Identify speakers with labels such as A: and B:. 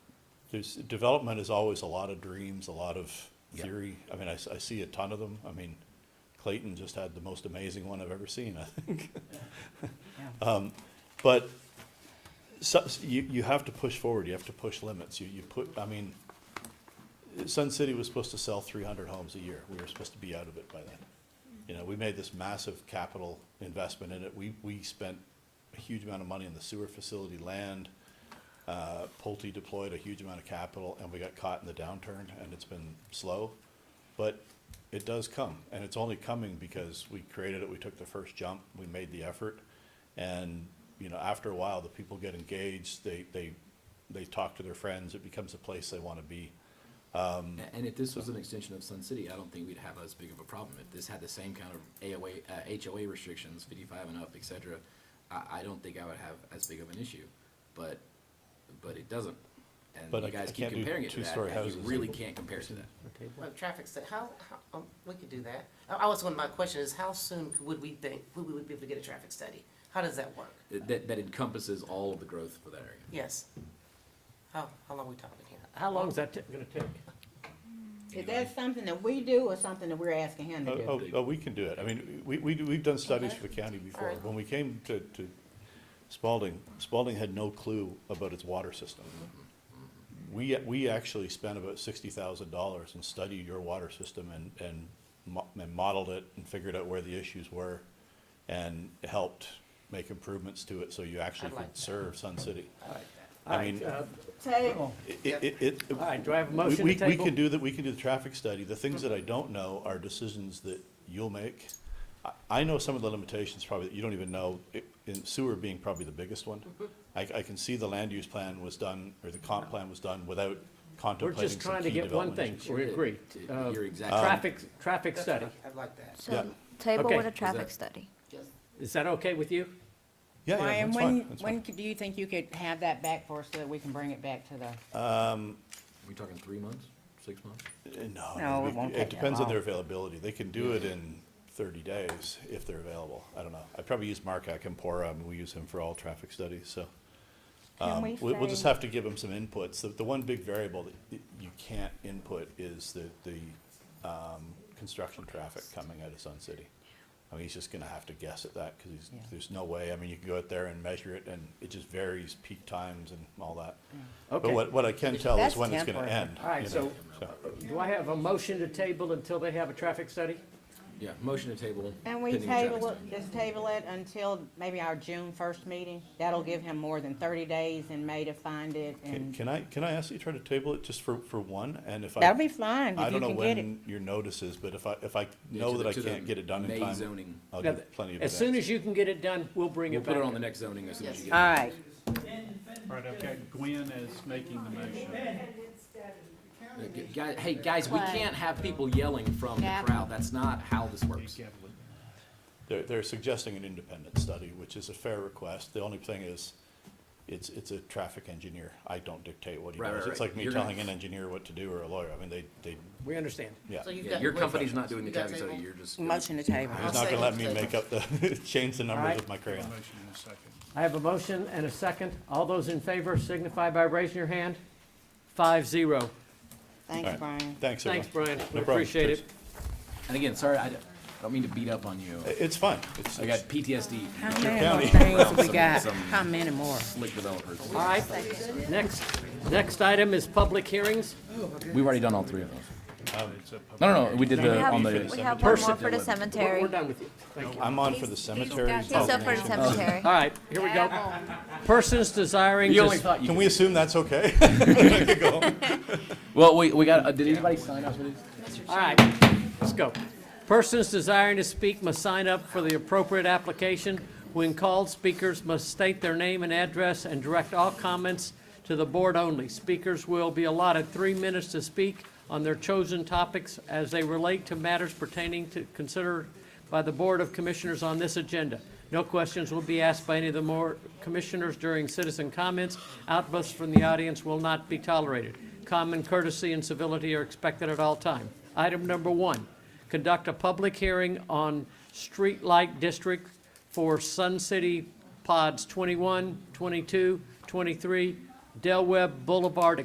A: there's, development is always a lot of dreams, a lot of
B: Yeah.
A: theory. I mean, I, s- I see a ton of them. I mean, Clayton just had the most amazing one I've ever seen, I think. Um, But so, you, you have to push forward, you have to push limits. You, you put, I mean, Sun City was supposed to sell three hundred homes a year. We were supposed to be out of it by then. You know, we made this massive capital investment in it. We, we spent a huge amount of money on the sewer facility, land. Uh, Pulte deployed a huge amount of capital and we got caught in the downturn and it's been slow. But it does come and it's only coming because we created it, we took the first jump, we made the effort. And, you know, after a while, the people get engaged, they, they, they talk to their friends, it becomes a place they want to be.
B: A- And if this was an extension of Sun City, I don't think we'd have as big of a problem. If this had the same kind of AOA, uh, HOA restrictions, fifty-five and up, et cetera, I, I don't think I would have as big of an issue. But, but it doesn't.
A: But
B: And
A: I-
B: you guys
A: I
B: keep
A: can't do
B: comparing it to that,
A: two-story
B: and you
A: houses.
B: really can't compare it to that.
C: table.
D: Well, traffic study, how, how, um, we could do that. I, I was, one of my questions is how soon would we think, would we be able to get a traffic study? How does that work?
B: That- That, that encompasses all of the growth for that area.
D: Yes. How, how long we talking here?
C: How long is that going to take?
E: Is that something that we do or something that we're asking him to
A: Oh,
E: do?
A: oh, oh, we can do it. I mean, we, we, do- we've done studies
D: Okay.
A: for the county before.
D: right.
A: When we came to, to Spalding, Spalding had no clue about its water system.
D: Mm-hmm.
A: We, we actually spent about sixty thousand dollars and studied your water system and, and mo- and modeled it and figured out where the issues were and helped make improvements to it so you actually
D: I like
A: could
D: that.
A: serve Sun City.
D: I like that.
A: I
C: All right,
A: mean-
C: uh,
E: Table.
A: It- it- it- it-
C: All right, do I have a
A: we-
C: motion to
A: we- We
C: table?
A: can do that, we can do the traffic study. The things that I don't know are decisions that you'll make. I, I know some of the limitations probably that you don't even know, i- in sewer being probably the biggest one.
C: Mm-hmm.
A: I, I can see the land use plan was done, or the comp plan was done without
C: We're
A: contemplating some
C: just trying to
A: key
C: get one
A: development
C: thing,
A: issues.
C: we
B: Sure,
C: agree.
B: it-
C: Uh,
B: you're exactly-
A: um,
C: Traffic, traffic study,
D: I like that.
A: Yeah.
F: So table
C: Okay.
F: with a
C: Is
F: traffic
B: that-
F: study.
D: Yes.
C: is that okay with you?
A: Yeah, yeah,
E: Ryan,
A: that's fine,
E: when,
A: that's
E: when
A: fine.
E: could- do you think you could have that back for us so that we can bring it back to the,
B: We talking three months, six months?
A: Uh, No.
E: No,
A: we-
E: it won't
A: It
E: take that
A: depends on their
E: long.
A: availability. They can do it in thirty days if they're available. I don't know. I probably use Mark Akampora, I mean, we use him for all traffic studies, so.
F: Can
A: Um,
F: we
A: We'll just
F: say-
A: have to give them some inputs. The, the one big variable that y- you can't input is the, the, um, construction traffic coming out of Sun City. I mean, he's just gonna have to guess at that, cause he's,
E: Yeah.
A: there's no way, I mean, you can go out there and measure it, and it just varies peak times and all that. But
C: Okay.
A: what, what I can tell is
E: That's
A: when it's gonna
E: temporary.
A: end.
C: All right,
A: you know,
C: so do I have a motion to table until they have a traffic study?
B: Yeah, motion to table.
E: and we
B: pending the traffic
E: table,
B: study.
E: it- just table it until maybe our June first meeting? That'll give him more than thirty days in May to find it
A: Can,
E: and,
A: can I, can I ask you to try to table it just for, for one, and if I.
E: that'll be fine
A: I
E: if you
A: don't know
E: can get it.
A: when your notice is, but if I, if I
B: Yeah,
A: know
B: to
A: that
B: the-
A: I
B: to the
A: can't get it done in
B: May
A: time,
B: zoning.
A: I'll
C: Now,
A: give plenty of.
C: As soon as you can get it done, we'll bring
B: We'll
C: it
B: put
C: back.
B: it on the next zoning as soon as you
E: All
B: get it.
E: right,
G: All right, I've got Gwen as making the motion.
B: Uh, gu- guy- Hey, guys, we
F: Play.
B: can't have people yelling from the
F: Yeah.
B: crowd. That's not how this works.
A: They're, they're suggesting an independent study, which is a fair request. The only thing is, it's, it's a traffic engineer. I don't dictate what he
B: Right,
A: does.
B: right,
A: It's
B: right.
A: like me
B: You're gonna-
A: telling an engineer what to do or a lawyer. I mean, they, they,
C: We understand.
A: yeah.
D: So you've
B: Yeah,
D: got.
B: your company's not doing the
D: You got
B: traffic study,
D: table?
B: you're just. gonna-
E: motion to table.
A: He's not
D: say
A: gonna let me
D: it's
A: make up the, change the numbers
C: Alright.
A: with my crayon.
G: Motion in a second.
C: I have a motion and a second. All those in favor signify by raising your hand. Five, zero.
E: Thanks, Brian.
A: Thanks, everyone.
C: Thanks, Brian. We
A: No problem.
C: appreciate it.
A: Cheers.
B: And again, sorry, I d- I don't mean to beat up on you.
A: It's fine. It's,
B: I got
A: it's-
B: PTSD.
E: How many more
A: county.
E: things we
B: Some-
E: got?
B: some-
E: How many more?
B: Slick developers.
C: All right, next, next item is public hearings.
B: We've already done all three of those.
G: It's a public-
B: No, no, no, we did
F: We
B: the,
F: have,
B: on
F: we
B: the,
F: have one more
C: Person.
F: for the
C: We're
F: cemetery.
C: we're done with you. Thank you.
A: I'm on for the Oh, cemeteries.
F: He's up for the cemetery.
C: All right, here we go. Persons desiring
B: you only
C: to,
B: thought you
A: Can
B: could.
A: we assume that's okay?
B: Well, we, we got, uh, did anybody sign up for these?
C: all right, let's go. Persons desiring to speak must sign up for the appropriate application. When called, speakers must state their name and address and direct all comments to the board only. Speakers will be allotted three minutes to speak on their chosen topics as they relate to matters pertaining to consider by the Board of Commissioners on this agenda. No questions will be asked by any of the more commissioners during citizen comments. Outbursts from the audience will not be tolerated. Common courtesy and civility are expected at all time. Item number one, conduct a public hearing on streetlight district for Sun City Pods 21, 22, 23, Del Webb Boulevard